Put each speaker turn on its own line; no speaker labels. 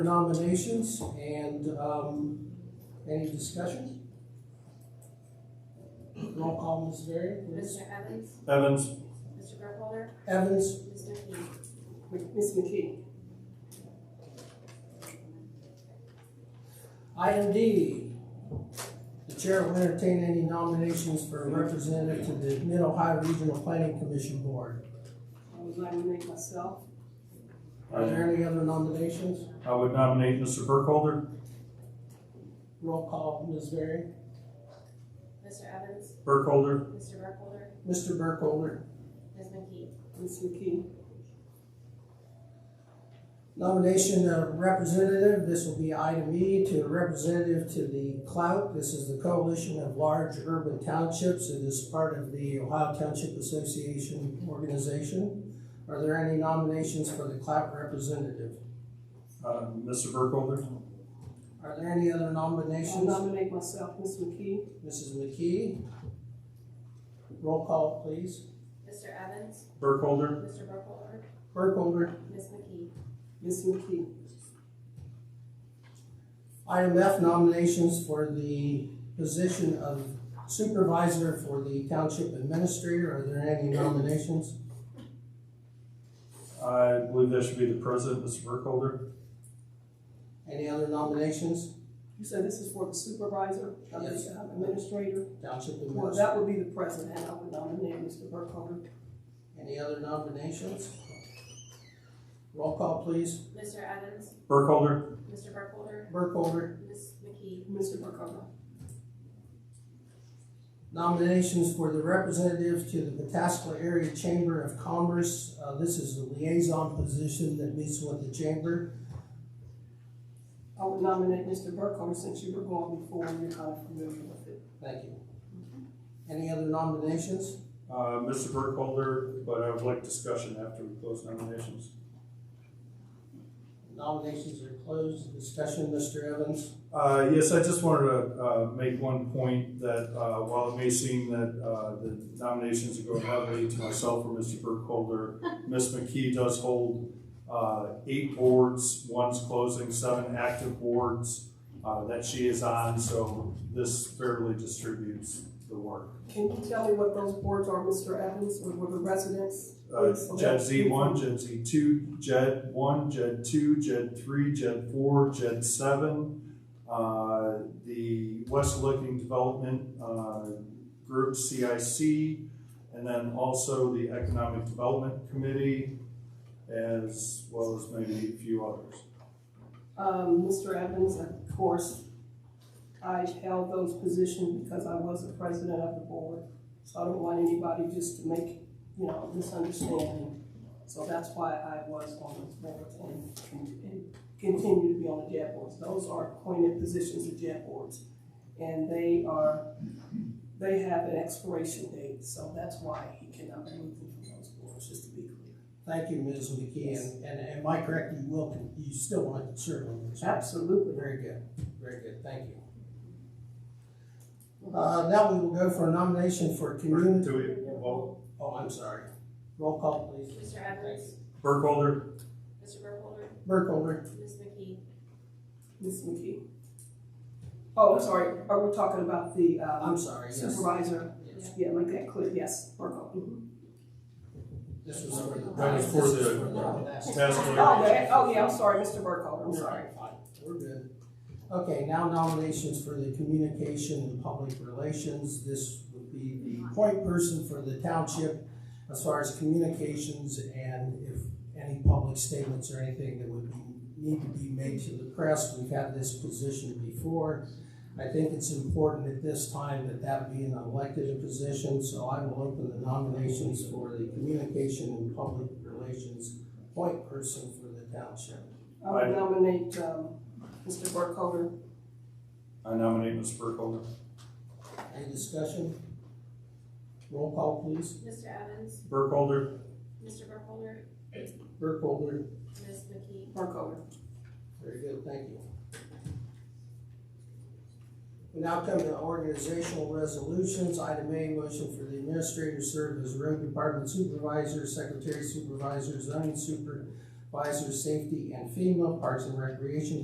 nominations and um, any discussion? Roll call, Ms. Varian, please.
Mr. Evans?
Evans,
Mr. Burkholder?
Evans,
Mr. McKee?
Ms. McKee?
item D. The chair will entertain any nominations for a representative to the Mid-Ohio Regional Planning Commission Board.
I would like to make myself.
Are there any other nominations?
I would nominate Mr. Burkholder.
Roll call, Ms. Varian.
Mr. Evans?
Burkholder,
Mr. Burkholder?
Mr. Burkholder.
Ms. McKee?
Ms. McKee?
Nomination of representative, this will be item E, to a representative to the CLOUT. This is the Coalition of Large Urban Townships. It is part of the Ohio Township Association organization. Are there any nominations for the CLOUT representative?
uh, Mr. Burkholder.
Are there any other
I
nominations?
nominate myself, Ms. McKee.
Mrs. McKee? Roll call, please.
Mr. Evans?
Burkholder,
Mr. Burkholder?
Burkholder?
Ms. McKee?
Ms. McKee?
Item F, nominations for the position of supervisor for the township administrator. Are there any nominations?
I believe that should be the president, Mr. Burkholder.
Any other nominations?
You said this is for the supervisor, not
Yes.
the administrator?
Township
Well,
administrator.
that would be the president, I would nominate Mr. Burkholder.
Any other nominations? Roll call, please.
Mr. Evans?
Burkholder,
Mr. Burkholder?
Burkholder.
Ms. McKee?
Mr. Burkholder?
Nominations for the representative to the Pataskla Area Chamber of Commerce. Uh, This is the liaison position that meets with the chamber.
I would nominate Mr. Burkholder since you were going before and you're kind of familiar with it.
Thank you. Any other nominations?
uh, Mr. Burkholder, but I would like discussion after we close nominations.
Nominations are closed. Discussion, Mr. Evans.
Uh, yes, I just wanted to, uh, make one point that, uh, while it may seem that, uh, the nominations are going heavily to myself or Mr. Burkholder, Ms. McKee does hold, uh, eight boards, one's closing, seven active boards, uh, that she is on, so this fairly distributes the work.
Can you tell me what those boards are, Mr. Evans, or were the residents?
Uh, Jed Z one, Jed Z two, Jed one, Jed two, Jed three, Jed four, Jed seven. Uh, the West Looking Development, uh, Group CIC, and then also the Economic Development Committee, as well as maybe a few others.
Um, Mr. Evans, of course, I held those positions because I was the president of the board. So I don't want anybody just to make, you know, misunderstanding. So that's why I was on those boards and, and continue to be on the JAB boards. Those are appointed positions of JAB boards. And they are, they have an expiration date, so that's why he cannot remove them from those boards, just to be clear.
Thank you, Ms. McKee, and, and am I correct, you will, con- you still want to serve on this?
Absolutely.
Very good, very good, thank you. Uh, now we will go for a nomination for community,
Do we, well,
oh, I'm sorry, roll call please.
Mr. Evans?
Burkholder,
Mr. Burkholder?
Burkholder,
Ms. McKee?
Ms. McKee? Oh, I'm sorry, are we talking about the,
I'm
um,
sorry, yes,
supervisor?
Yes.
Yeah, make that clear, yes, Burkholder.
Mm-hmm.
Mhm.
this was over the.
That was for the-
this was for last-
Task
Oh,
Force.
that, oh, yeah, I'm sorry, Mr. Burkholder, Oh, I'm sorry.
Fine, We're good. Okay, now nominations for the communication and public relations. This would be the point person for the township as far as communications and if any public statements or anything that would be, need to be made to the press. We've had this position before. I think it's important at this time that that be an elected position, so I will open the nominations for the communication and public relations point person for the township.
I would nominate, um, Mr. Burkholder.
I nominate Mr. Burkholder.
Any discussion? Roll call, please.
Mr. Evans?
Burkholder,
Mr. Burkholder?
Burkholder.
Ms. McKee?
Burkholder.
Very good, thank you. We now come to organizational resolutions. Item A, motion for the administrator to serve as road department supervisor, secretary supervisor, zoning super, Visor Safety and FEMA Parks and Recreation